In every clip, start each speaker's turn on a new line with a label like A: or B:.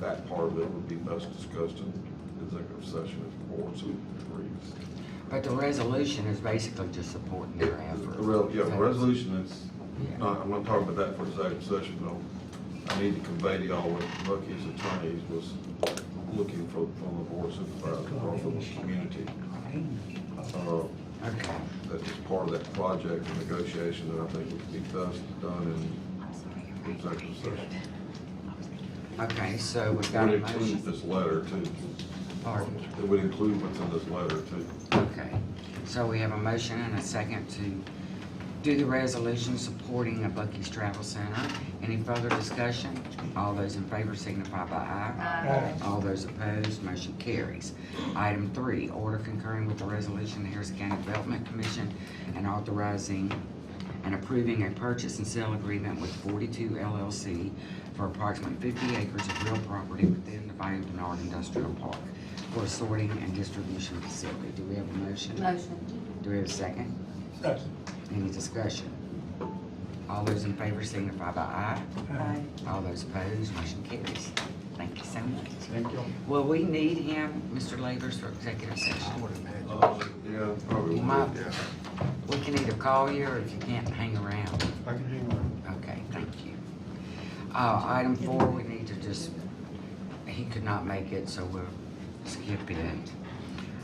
A: that part of it would be best discussed in executive session if the board so agrees.
B: But the resolution is basically just supporting their effort.
A: The re- Yeah, the resolution is,
B: Yeah.
A: not- I'm not talking about that for executive session, but I need to convey to y'all what Bucky's attorneys was looking for from the board supervisor, or from the community. uh,
B: Okay,
A: That is part of that project and negotiation that I think would be best done in executive session.
B: okay, so we've got
A: Would
B: a
A: include
B: motion.
A: this letter too.
B: Pardon?
A: It would include what's in this letter too.
B: Okay, so we have a motion and a second to do the resolution supporting a Bucky's Travel Center. Any further discussion? All those in favor signify by aye. Aye. All those opposed, motion carries. Item three, order concurring with the resolution of the Harrison County Development Commission and authorizing and approving a purchase and sale agreement with forty-two LLC for approximately fifty acres of real property within the Bayou Denard Industrial Park for a sorting and distribution facility. Do we have a motion?
C: Motion.
B: Do we have a second?
D: Second.
B: Any discussion? All those in favor signify by aye.
C: Aye.
B: All those opposed, motion carries. Thank you so much.
D: Thank you.
B: Will we need him, Mr. Labors, for executive session?
A: Uh, Yeah, probably. would.
B: My- We can either call you or if you can't, hang around.
D: I can hang on.
B: Okay, thank you. Uh, item four, we need to just, he could not make it, so we'll skip it.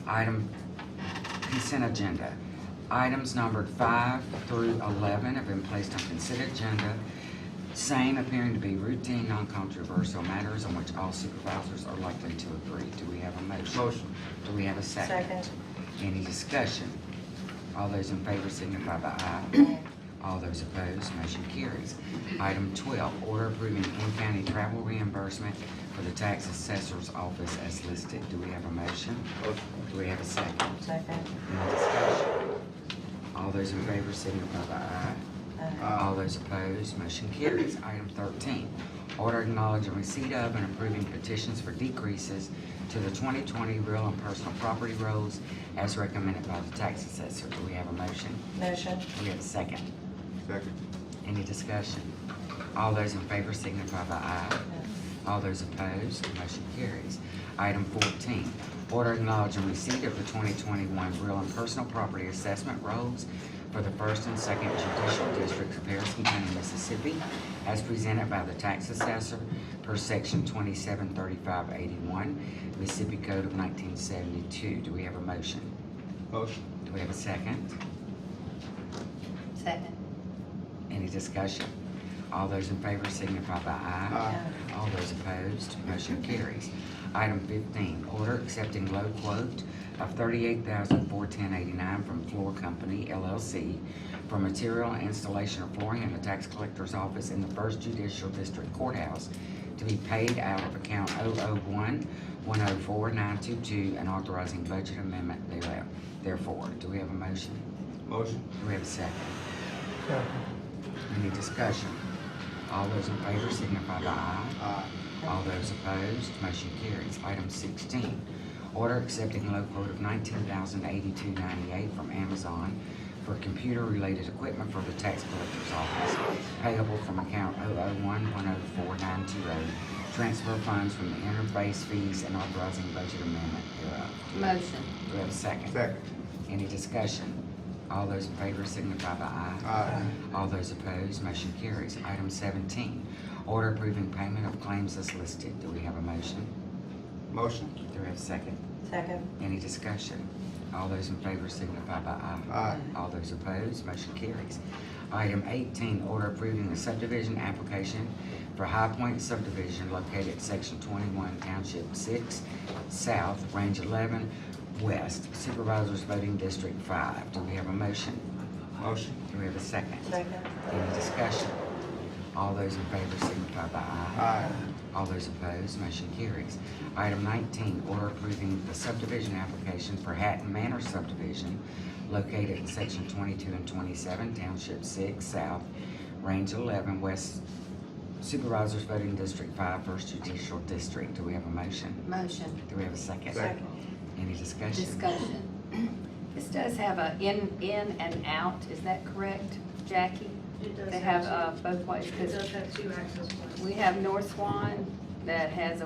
B: Item, consent agenda. Items numbered five through eleven have been placed on consent agenda. Same appearing to be routine, non-controversial matters on which all supervisors are likely to agree. Do we have a motion? Motion. Do we have a
C: Second.
B: any discussion? All those in favor signify by aye. All those opposed, motion carries. Item twelve, order approving in-county travel reimbursement for the tax assessor's office as listed. Do we have a motion? Do we have a second?
C: Second.
B: Any discussion? All those in favor signify by aye.
C: Aye.
B: All those opposed, motion carries. Item thirteen, order acknowledging receipt of and approving petitions for decreases to the twenty twenty real and personal property rolls as recommended by the tax assessor. Do we have a motion?
C: Motion.
B: Do we have a second?
A: Second.
B: Any discussion? All those in favor signify by aye. All those opposed, motion carries. Item fourteen, order acknowledging receipt of the twenty twenty-one real and personal property assessment rolls for the first and second judicial districts of Harrison County, Mississippi, as presented by the tax assessor per section twenty-seven thirty-five eighty-one, Mississippi Code of nineteen seventy-two. Do we have a motion?
D: Motion.
B: Do we have a second?
C: Second.
B: Any discussion? All those in favor signify by aye. All those opposed, motion carries. Item fifteen, order accepting low quote of thirty-eight thousand four ten eighty-nine from Floor Company LLC for material and installation of flooring in the tax collector's office in the First Judicial District Courthouse to be paid out of account 001-104-922 and authorizing budget amendment thereof. Therefore, do we have a motion?
D: Motion.
B: Do we have a second?
D: Second.
B: Any discussion? All those in favor signify by aye.
D: Aye.
B: All those opposed, motion carries. Item sixteen, order accepting low quote of nineteen thousand eighty-two ninety-eight from Amazon for computer-related equipment for the tax collector's office payable from account 001-104-920. Transfer funds from the interface fees and authorizing budget amendment thereof.
C: Motion.
B: Do we have a second?
D: Second.
B: Any discussion? All those in favor signify by aye.
D: Aye.
B: All those opposed, motion carries. Item seventeen, order approving payment of claims as listed. Do we have a motion?
D: Motion.
B: Do we have a second?
C: Second.
B: Any discussion? All those in favor signify by aye.
D: Aye.
B: All those opposed, motion carries. Item eighteen, order approving the subdivision application for High Point subdivision located at section twenty-one, township six, south, range eleven, west, supervisors voting district five. Do we have a motion?
D: Motion.
B: Do we have a second?
C: Second.
B: Any discussion? All those in favor signify by aye.
D: Aye.
B: All those opposed, motion carries. Item nineteen, order approving the subdivision application for Hatton Manor subdivision located in section twenty-two and twenty-seven, township six, south, range eleven, west supervisors voting district five, first judicial district. Do we have a motion?
E: Motion,
B: Do we have a second?
D: Second.
B: Any discussion?
E: discussion. This does have a in, in and out, is that correct, Jackie?
F: It does
E: They have
F: have
E: uh, both ways,
F: It
E: because
F: does have two access points.
E: we have North Swan that has a